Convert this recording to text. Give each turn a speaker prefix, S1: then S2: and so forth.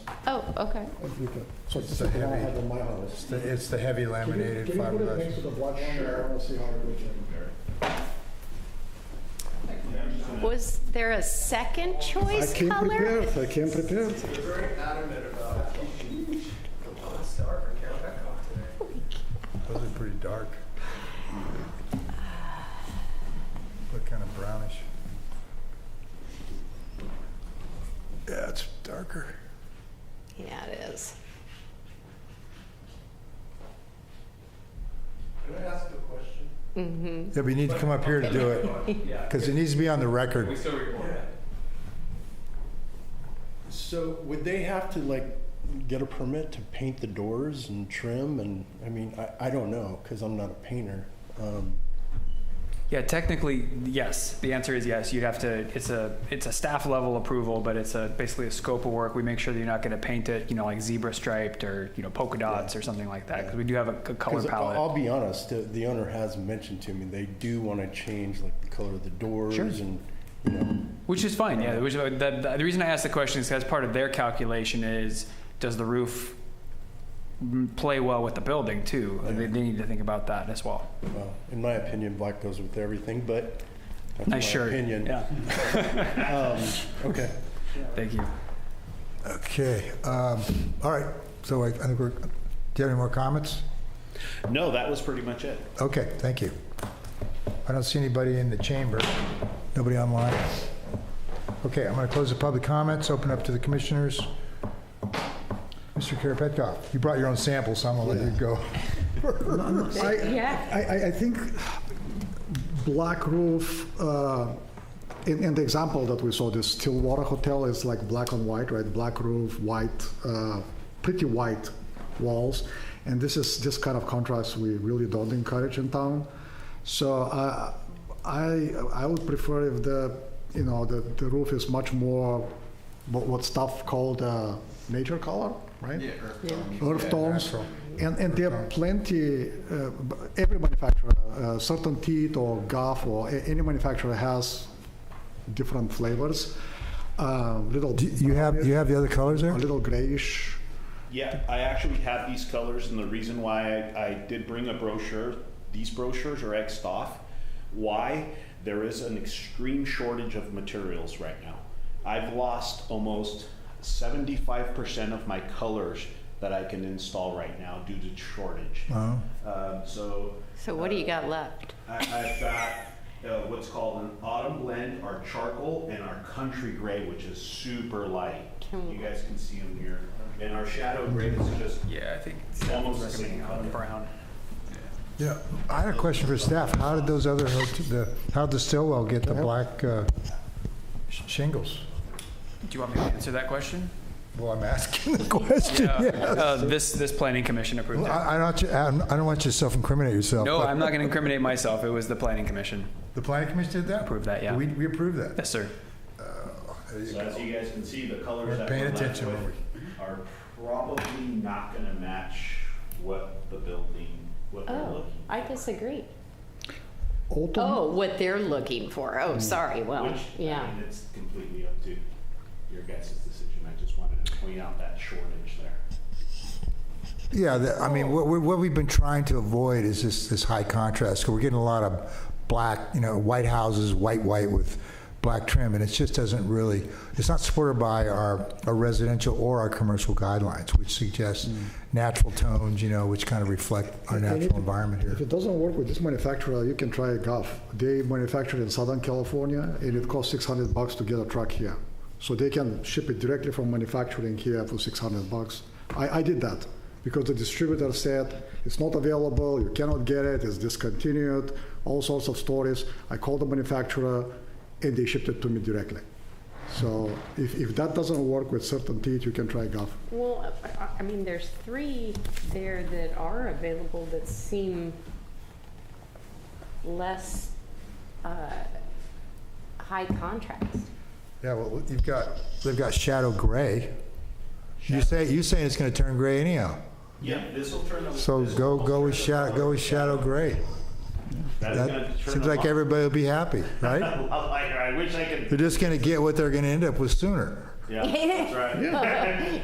S1: Oh, okay.
S2: if you could. So
S3: It's
S2: this
S3: the
S2: is what I
S3: heavy-
S2: have in my house.
S3: It's the- It's the heavy
S2: Can you-
S3: laminated
S2: Can you put a
S3: fiberglass.
S2: picture of the watch on there? I want to see how it looks.
S1: Was there a second
S2: I
S1: choice
S2: came
S1: color?
S2: prepared, I came prepared.
S3: Those are pretty dark. Look kind of brownish. Yeah, it's darker.
S1: Yeah, it is.
S4: Can I ask a question?
S3: Yeah, but you need to come up here to do it,
S4: Yeah.
S3: because it needs to be on the
S4: We
S3: record.
S4: still record it.
S5: So would they have to like get a permit to paint the doors and trim and, I mean, I, I don't know, because I'm not a painter. Um,
S6: Yeah, technically, yes. The answer is yes. You'd have to, it's a, it's a staff level approval, but it's a, basically a scope of work. We make sure that you're not going to paint it, you know, like zebra striped or, you know, polka dots or something like that, because we do have a c- color
S5: 'cause I-
S6: palette.
S5: I'll be honest, the, the owner has mentioned to me, they do want to change like the color of the doors and, you know,
S6: Which is fine, yeah. Which, the, the, the reason I asked the question is because part of their calculation is, does the roof m- play well with the building too? They, they need to think about that as well.
S5: well, in my opinion, black goes with everything, but that's my
S6: Nice shirt.
S5: opinion.
S6: Yeah,
S5: Okay.
S6: thank you.
S3: Okay, um, all right, so I I think we're, do you have any more comments?
S7: No, that was pretty much it.
S3: Okay, thank you. I don't see anybody in the chamber, nobody online. Okay, I'm going to close the public comments, open up to the commissioners. Mr. Karapetkov, you brought your own sample, so I'm going to let you go.
S2: uh,
S1: Yeah.
S2: I, I, I think black roof, uh, in, in the example that we saw, this Stillwater Hotel is like black on white, right? Black roof, white, uh, pretty white walls. And this is this kind of contrast we really don't encourage in town. So I, I, I would prefer if the, you know, the, the roof is much more what, what stuff called uh, nature color, right? Yeah, earth tones. And, and there are plenty, uh, b- every manufacturer, uh, certain teat or guff or a- any manufacturer has different flavors. Uh, little,
S3: Do you have, you have the other colors
S2: a
S3: there?
S2: little grayish.
S7: Yeah, I actually have these colors, and the reason why I, I did bring a brochure, these brochures are xed off. Why? There is an extreme shortage of materials right now. I've lost almost 75% of my colors that I can install right now due to shortage. Um, so
S1: So what do you got left?
S7: I, I've got uh, what's called an autumn blend, our charcoal, and our country gray, which is super light. You guys can see them here. And our shadow gray is just
S6: Yeah, I think
S7: almost the same color.
S6: brown.
S3: Yeah, I had a question for staff. How did those other, hot- the how'd the Stillwell get the black uh, sh- shingles?
S6: Do you want me to answer that question?
S3: Well, I'm asking the question, yeah.
S6: Uh, this, this planning commission approved it.
S3: I I don't, want you- I don't- I don't want you to self-incriminate yourself.
S6: No,
S3: but-
S6: I'm not going to incriminate myself. It was the planning commission.
S3: The planning commission did that?
S6: Approved that, yeah.
S3: We we approved that.
S6: Yes, sir.
S7: So as you guys can see, the colors
S3: We're
S7: that
S3: paying
S7: we're left
S3: attention,
S7: with
S3: aren't
S7: are probably not gonna match what the building, what they're
S1: Oh,
S7: looking.
S1: I disagree.
S2: Autumn,
S1: Oh, what they're looking for.
S2: Hmm.
S1: Oh, sorry. Well,
S7: Which, I
S1: yeah.
S7: mean, it's completely up to your guys' decision. I just wanted to point out that shortage there.
S3: Yeah, the- I mean, what, we- what we've been trying to avoid is this, this high contrast. 'cause We're getting a lot of black, you know, white houses, white, white with black trim, and it just doesn't really, it's not supported by our, our residential or our commercial guidelines, which suggests natural tones, you know, which kind of reflect our
S2: And- and
S3: natural
S2: Mm. if-
S3: environment
S2: If
S3: here.
S2: it doesn't work with this manufacturer, you can try Guff. They manufacture in Southern California, and it costs 600 bucks to get a truck here. So they can ship it directly from manufacturing here for 600 bucks. I, I did that because the distributor said it's not available, you cannot get it, it's discontinued, all sorts of stories. I called the manufacturer, and they shipped it to me directly. So if, if that doesn't work with certain teeth, you can try Guff.
S1: Well, I- I- I mean, there's three there that are available that seem less uh, high contrast.
S3: Yeah, well, you've got, they've got shadow gray. You say, you saying it's gonna turn gray anyhow.
S7: Yeah, this'll turn the.
S3: So
S7: this'll
S3: go, go
S7: turn
S3: with
S7: the
S3: shadow,
S7: color.
S3: go with shadow gray.
S7: That's gonna
S3: That
S7: turn
S3: seems
S7: the
S3: like
S7: lo-
S3: everybody will be happy, right?
S7: the lot lighter. I wish I could,
S3: They're just gonna get what they're gonna end up with sooner.
S7: yeah, that's right.